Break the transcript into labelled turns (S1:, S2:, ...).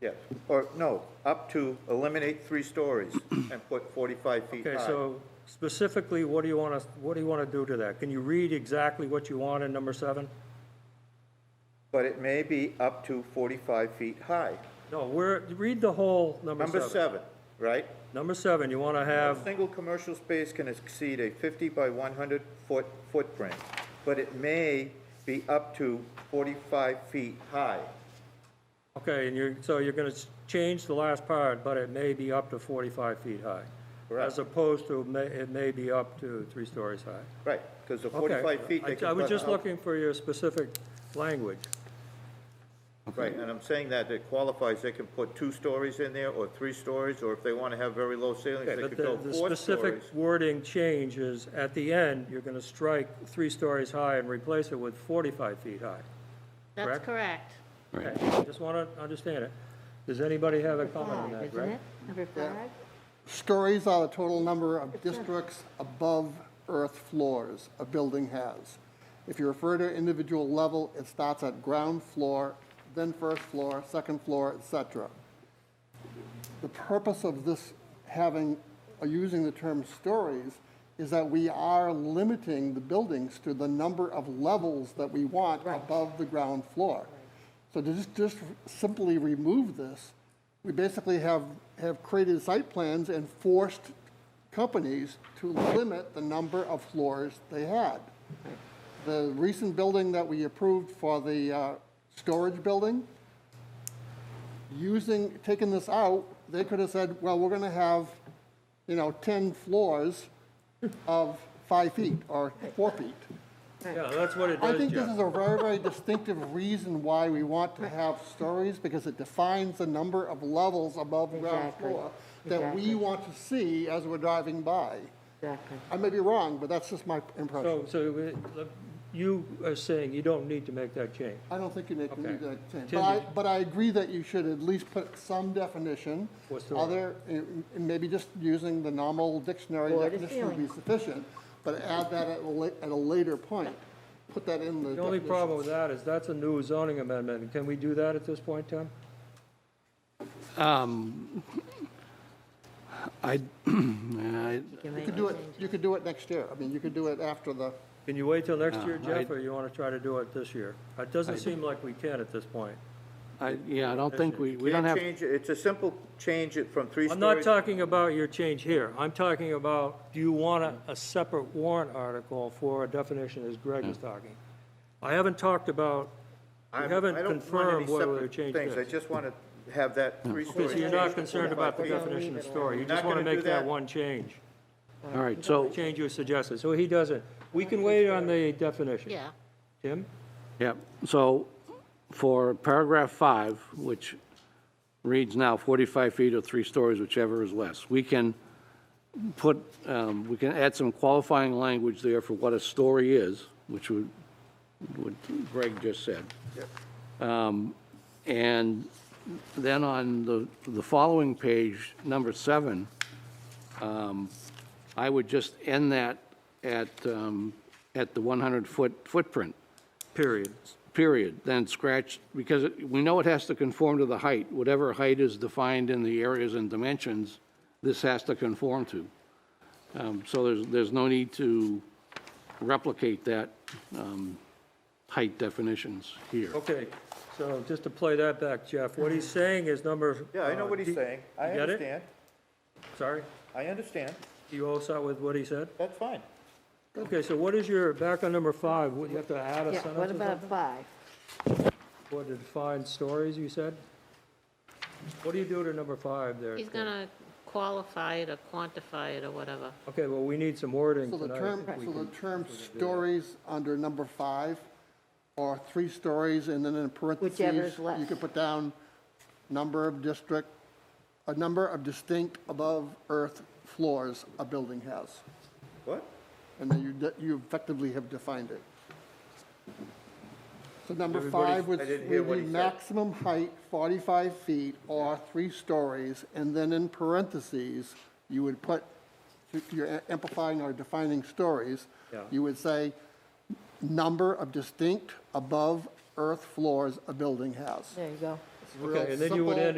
S1: Yeah, or no, up to eliminate three stories and put 45 feet
S2: Okay,
S1: high.
S2: so specifically, what do you want to, what do you want to do to that? Can you read exactly what you want in number seven?
S1: But it may be up to 45 feet high.
S2: No, we're, read the whole number
S1: Number
S2: seven. Um,
S1: seven, right?
S2: Number seven, you want to have
S1: A single commercial space can exceed a 50 by 100 foot footprint, but it may be up to 45 feet high.
S2: Okay, and you're, so you're gonna s- change the last part, but it may be up to forty-five feet high.
S1: Correct.
S2: As opposed to, may- it may be up to three stories high.
S1: Right, because the
S2: Okay,
S1: 45 feet,
S2: I-
S1: they can...
S2: I was
S1: put
S2: just
S1: out-
S2: looking for your specific language.
S1: Right, and I'm saying that it qualifies, they can put two stories in there, or three stories, or if they want to have very low ceilings,
S2: Okay,
S1: they
S2: but
S1: could
S2: the,
S1: go
S2: the
S1: four
S2: specific
S1: stories.
S2: wording change is, at the end, you're gonna strike three stories high and replace it with forty-five feet high.
S3: That's
S2: Correct?
S3: correct.
S2: Okay, I just wanna understand it. Does anybody have a comment on
S3: Five,
S2: that,
S3: isn't
S2: Greg?
S3: it? Number five?
S4: Stories are the total number of districts above earth floors a building has. If you refer to individual level, it starts at ground floor, then first floor, second floor, et cetera. The purpose of this having, or using the term stories, is that we are limiting the buildings to the number of levels that we want above the ground floor. So to just, just simply remove this, we basically have, have created site plans and forced companies to limit the number of floors they had. The recent building that we approved for the, uh, storage building, using, taking this out, they could have said, well, we're gonna have, you know, ten floors of five feet or four feet.
S2: Yeah, that's what it
S4: I
S2: does,
S4: think this
S2: Jeff.
S4: is a very, very distinctive reason why we want to have stories, because it defines the number of levels above ground
S3: Exactly.
S4: floor that we
S3: Exactly.
S4: want to see as we're driving by.
S3: Exactly.
S4: I may be wrong, but that's just my
S2: So,
S4: impression.
S2: so uh, you are saying you don't need to make that change?
S4: I don't think you make, you
S2: Okay.
S4: need that change. But I,
S2: Continue.
S4: but I agree that you should at least put some definition.
S2: For story.
S4: Other, eh, maybe just using the normal dictionary
S3: Or the
S4: definition would be sufficient, but add that at a la, at a later point. Put that in the
S2: The only
S4: definition.
S2: problem with that is that's a new zoning amendment. Can we do that at this point, Tim?
S5: Um, I, I,
S3: can
S4: You
S3: make
S4: could
S3: it.
S4: do it, you could do it next year. I mean, you could do it after the,
S2: Can you wait till next year,
S5: No, I-
S2: Jeff, or you want to try to do it this year? It doesn't seem like we can at this point.
S5: I, yeah, I don't think we, we don't
S1: Can't
S5: have,
S1: change it. It's a simple change it from three
S2: I'm
S1: stories.
S2: not talking about your change here. I'm talking about, do you want a, a separate warrant article for a definition as Greg was talking? I haven't talked about, we
S1: Hmm. I'm- I
S2: haven't
S1: don't want any
S2: confirmed whether they
S1: separate
S2: changed
S1: things. I
S2: this.
S1: just want to have that three stories.
S2: So you're
S1: changed
S2: not
S1: to
S2: concerned about
S1: 45
S2: the
S1: feet.
S2: definition of
S3: Leave it
S2: story. You
S1: alone. Not
S2: just want to
S1: gonna do
S2: make that
S1: that.
S2: one change.
S5: all right, so,
S2: Change you suggested, so he doesn't. We can wait on the definition.
S3: Yeah,
S2: Tim?
S5: yeah, so for paragraph five, which reads now 45 feet or three stories, whichever is less, we can put, um, we can add some qualifying language there for what a story is, which would, what Greg just said. Um, And then on the, the following page, number seven, um, I would just end that at, um, at the 100-foot footprint,
S2: Period.
S5: period, then scratch, because it- we know it has to conform to the height. Whatever height is defined in the areas and dimensions, this has to conform to. Um, So there's, there's no need to replicate that um, height definitions here.
S2: Okay, so just to play that back, Jeff, what he's saying is number.
S1: Yeah, I know
S2: uh,
S1: what he's
S2: D-
S1: saying. I
S2: you get it?
S1: understand.
S2: Sorry,
S1: I understand.
S2: you all saw with what he said?
S1: That's fine.
S2: Okay, so what is your, back on number five, what, you have to add a
S3: yeah,
S2: sentence or
S3: what about
S2: something?
S3: five?
S2: Or to define stories, you said? What do you do to number five there?
S3: He's
S2: Tim?
S3: gonna qualify it or quantify it or whatever.
S2: Okay, well, we need some wording
S4: so the
S2: tonight.
S4: term,
S2: We
S4: so the
S2: can-
S4: term stories under number five or three stories and then in parentheses.
S3: Whichever's
S4: You
S3: less.
S4: could put down number of district, a number of distinct above earth floors a building has.
S1: What?
S4: And then you, de- you effectively have defined it. So number
S2: Everybody-
S4: five would
S1: I didn't hear
S4: would
S1: what
S4: be
S1: he said.
S4: maximum height, 45 feet or three stories, and then in parentheses, you would put, if you're amplifying or defining stories,
S2: Yeah.
S4: you would say, number of distinct above-earth floors a building has.
S3: There you go.
S4: It's real
S2: Okay, and then you would
S4: simple.
S2: end